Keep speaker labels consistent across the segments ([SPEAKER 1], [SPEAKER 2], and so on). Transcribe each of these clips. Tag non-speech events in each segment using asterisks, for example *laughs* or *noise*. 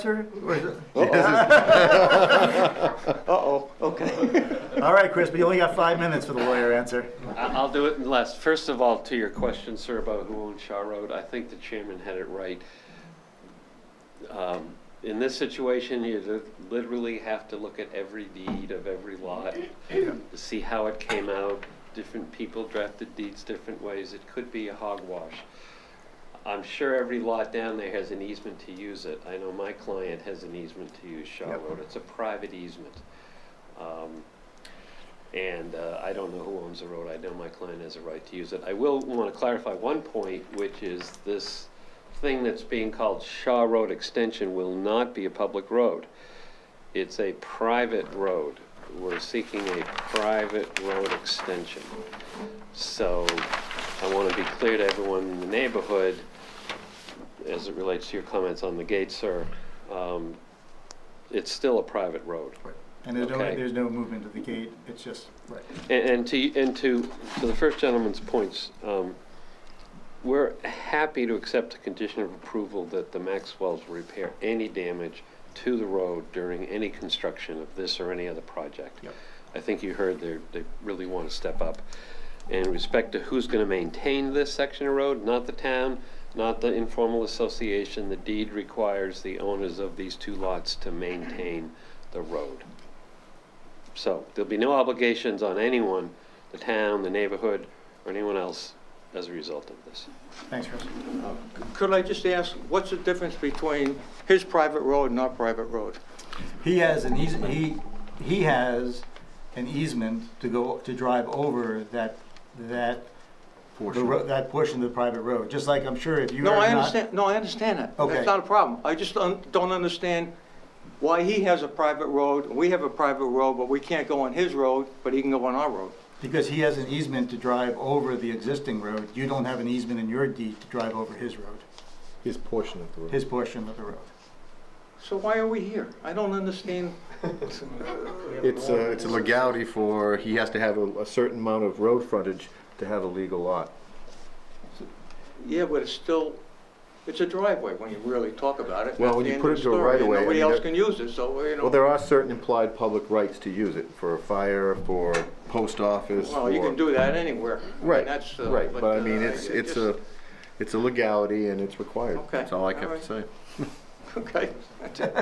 [SPEAKER 1] Sir, or is it-
[SPEAKER 2] *laughs* Uh-oh, okay.
[SPEAKER 1] *laughs* All right, Chris, but you only got five minutes for the lawyer answer.
[SPEAKER 3] I- I'll do it in less. First of all, to your question, sir, about who owns Shaw Road, I think the chairman had it right. Um, In this situation, you li- literally have to look at every deed of every lot to see how it came out. Different people drafted deeds different ways. It could be a hogwash. I'm sure every lot down there has an easement to use it. I know my client has an easement to use Shaw
[SPEAKER 1] Yep.
[SPEAKER 3] Road. It's a private easement. Um, And uh, I don't know who owns the road. I know my client has a right to use it. I will want to clarify one point, which is this thing that's being called Shaw Road Extension will not be a public road. It's a private road. We're seeking a private road extension. So I want to be clear to everyone in the neighborhood, as it relates to your comments on the gate, sir, um, it's still a private road.
[SPEAKER 1] And there's no,
[SPEAKER 3] Okay.
[SPEAKER 1] there's no movement of the gate, it's just, right.
[SPEAKER 3] And and to, and to, to the first gentleman's points, um, we're happy to accept the condition of approval that the Maxwells repair any damage to the road during any construction of this or any other project.
[SPEAKER 1] Yep.
[SPEAKER 3] I think you heard they, they really want to step up. In respect to who's going to maintain this section of road, not the town, not the informal association, the deed requires the owners of these two lots to maintain the road. So there'll be no obligations on anyone, the town, the neighborhood, or anyone else as a result of this.
[SPEAKER 1] Thanks, Chris.
[SPEAKER 2] Could I just ask, what's the difference between his private road and our private road?
[SPEAKER 1] He has an eas, he, he has an easement to go, to drive over that, that, the ro- that portion of the private road, just like I'm sure if you are
[SPEAKER 2] No,
[SPEAKER 1] not.
[SPEAKER 2] I understand, no, I understand that.
[SPEAKER 1] Okay.
[SPEAKER 2] That's not a problem. I just un- don't understand why he has a private road, we have a private road, but we can't go on his road, but he can go on our road.
[SPEAKER 1] Because he has an easement to drive over the existing road, you don't have an easement in your deed to drive over his road,
[SPEAKER 4] His portion of the road.
[SPEAKER 1] his portion of the road.
[SPEAKER 2] So why are we here? I
[SPEAKER 1] *laughs*
[SPEAKER 2] don't understand.
[SPEAKER 4] It's a, it's a legality for, he has to have a, a certain amount of road frontage to have a legal lot.
[SPEAKER 2] Yeah, but it's still, it's a driveway when you really talk about it.
[SPEAKER 4] Well, when you
[SPEAKER 2] End
[SPEAKER 4] put
[SPEAKER 2] of
[SPEAKER 4] it to a
[SPEAKER 2] story.
[SPEAKER 4] right of way, I
[SPEAKER 2] Nobody
[SPEAKER 4] mean,
[SPEAKER 2] else
[SPEAKER 4] that-
[SPEAKER 2] can use it, so, you know.
[SPEAKER 4] Well, there are certain implied public rights to use it, for fire, for post office, for.
[SPEAKER 2] Well, you can do that anywhere. I mean,
[SPEAKER 4] Right,
[SPEAKER 2] that's, uh,
[SPEAKER 4] right, but I
[SPEAKER 2] uh,
[SPEAKER 4] mean, it's,
[SPEAKER 2] I
[SPEAKER 4] it's a,
[SPEAKER 2] just-
[SPEAKER 4] it's a legality and it's required.
[SPEAKER 2] Okay,
[SPEAKER 4] That's all I have
[SPEAKER 2] alright.
[SPEAKER 4] to say.
[SPEAKER 2] *laughs* Okay.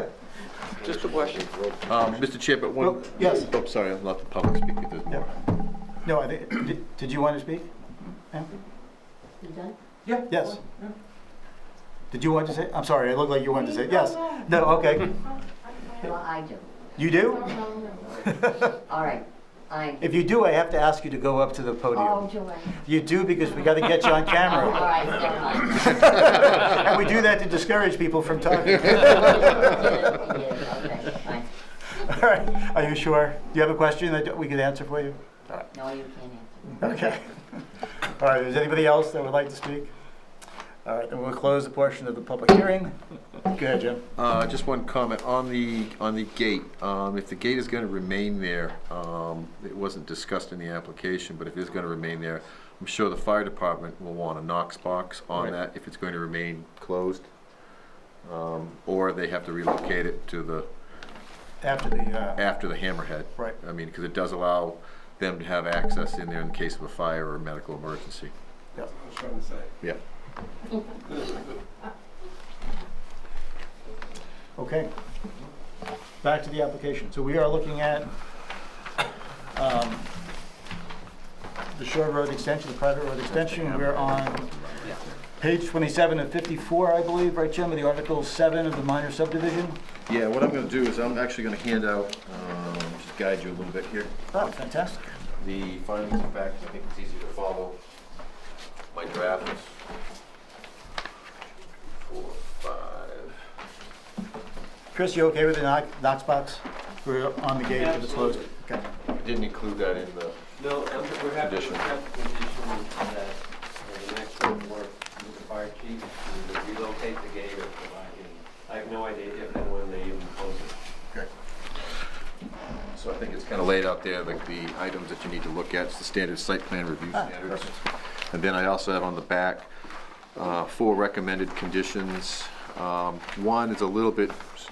[SPEAKER 1] *laughs*
[SPEAKER 2] Just a question.
[SPEAKER 4] Um, Mr. Chair, but one.
[SPEAKER 1] Well, yes.
[SPEAKER 4] Oh, sorry, I'll let the public speak if there's
[SPEAKER 1] Yeah.
[SPEAKER 4] more.
[SPEAKER 1] No, I think, did, did you want to speak? ma'am?
[SPEAKER 2] Yeah.
[SPEAKER 1] Yes. Did you want to say, I'm sorry, I looked like you wanted to say, yes. No, okay.
[SPEAKER 5] Well, I do.
[SPEAKER 1] You do? *laughs*
[SPEAKER 5] All right, I,
[SPEAKER 1] If you do, I have to ask you to go up to the
[SPEAKER 5] oh,
[SPEAKER 1] podium.
[SPEAKER 5] do I?
[SPEAKER 1] You do because we got to get you on *laughs*
[SPEAKER 5] Oh, All
[SPEAKER 1] camera.
[SPEAKER 5] right, never
[SPEAKER 1] *laughs*
[SPEAKER 5] mind. *laughs*
[SPEAKER 1] And we do that to discourage people from *laughs* talking.
[SPEAKER 5] Yeah, yeah, okay, fine.
[SPEAKER 1] All right, are you sure? Do you have a question that we could answer for you?
[SPEAKER 5] No, you can't answer.
[SPEAKER 1] Okay. All right, is anybody else that would like to speak? All right, then we'll close the portion of the public hearing. Go ahead, Jim.
[SPEAKER 4] Uh, just one comment on the, on the gate. Um, if the gate is gonna remain there, um, it wasn't discussed in the application, but if it is gonna remain there, I'm sure the fire department will want a Knox box
[SPEAKER 1] Right.
[SPEAKER 4] on that if it's going to remain closed. Um, or they have to relocate it to the,
[SPEAKER 1] After the, uh,
[SPEAKER 4] after the hammerhead.
[SPEAKER 1] Right.
[SPEAKER 4] I mean, cause it does allow them to have access in there in case of a fire or a medical emergency.
[SPEAKER 1] yeah.
[SPEAKER 4] Yeah.
[SPEAKER 1] Okay. Back to the application. So we are looking at um, the Shore Road extension, the private road extension. We're on page 27 of 54, I believe, right, Jim, of the Article 7 of the minor subdivision?
[SPEAKER 4] Yeah, what I'm gonna do is I'm actually gonna hand out, um, just guide you a little bit here.
[SPEAKER 1] Oh, fantastic.
[SPEAKER 4] the findings of fact, I think it's easy to follow. My draft is four, five.
[SPEAKER 1] Chris, you okay with the knock- Knox box? We're on the gate, but it's closed. Okay.
[SPEAKER 4] I didn't include that in the,
[SPEAKER 3] No, we're happy,
[SPEAKER 4] Condition.
[SPEAKER 3] that the next one work with the fire chief to relocate the gate or provide, I have no idea if and when they even close it.
[SPEAKER 4] so I think it's kind of laid out there, like the items that you need to look at, it's the standard site plan review standards. And then I also have on the back, uh, four recommended conditions. Um, One is a little bit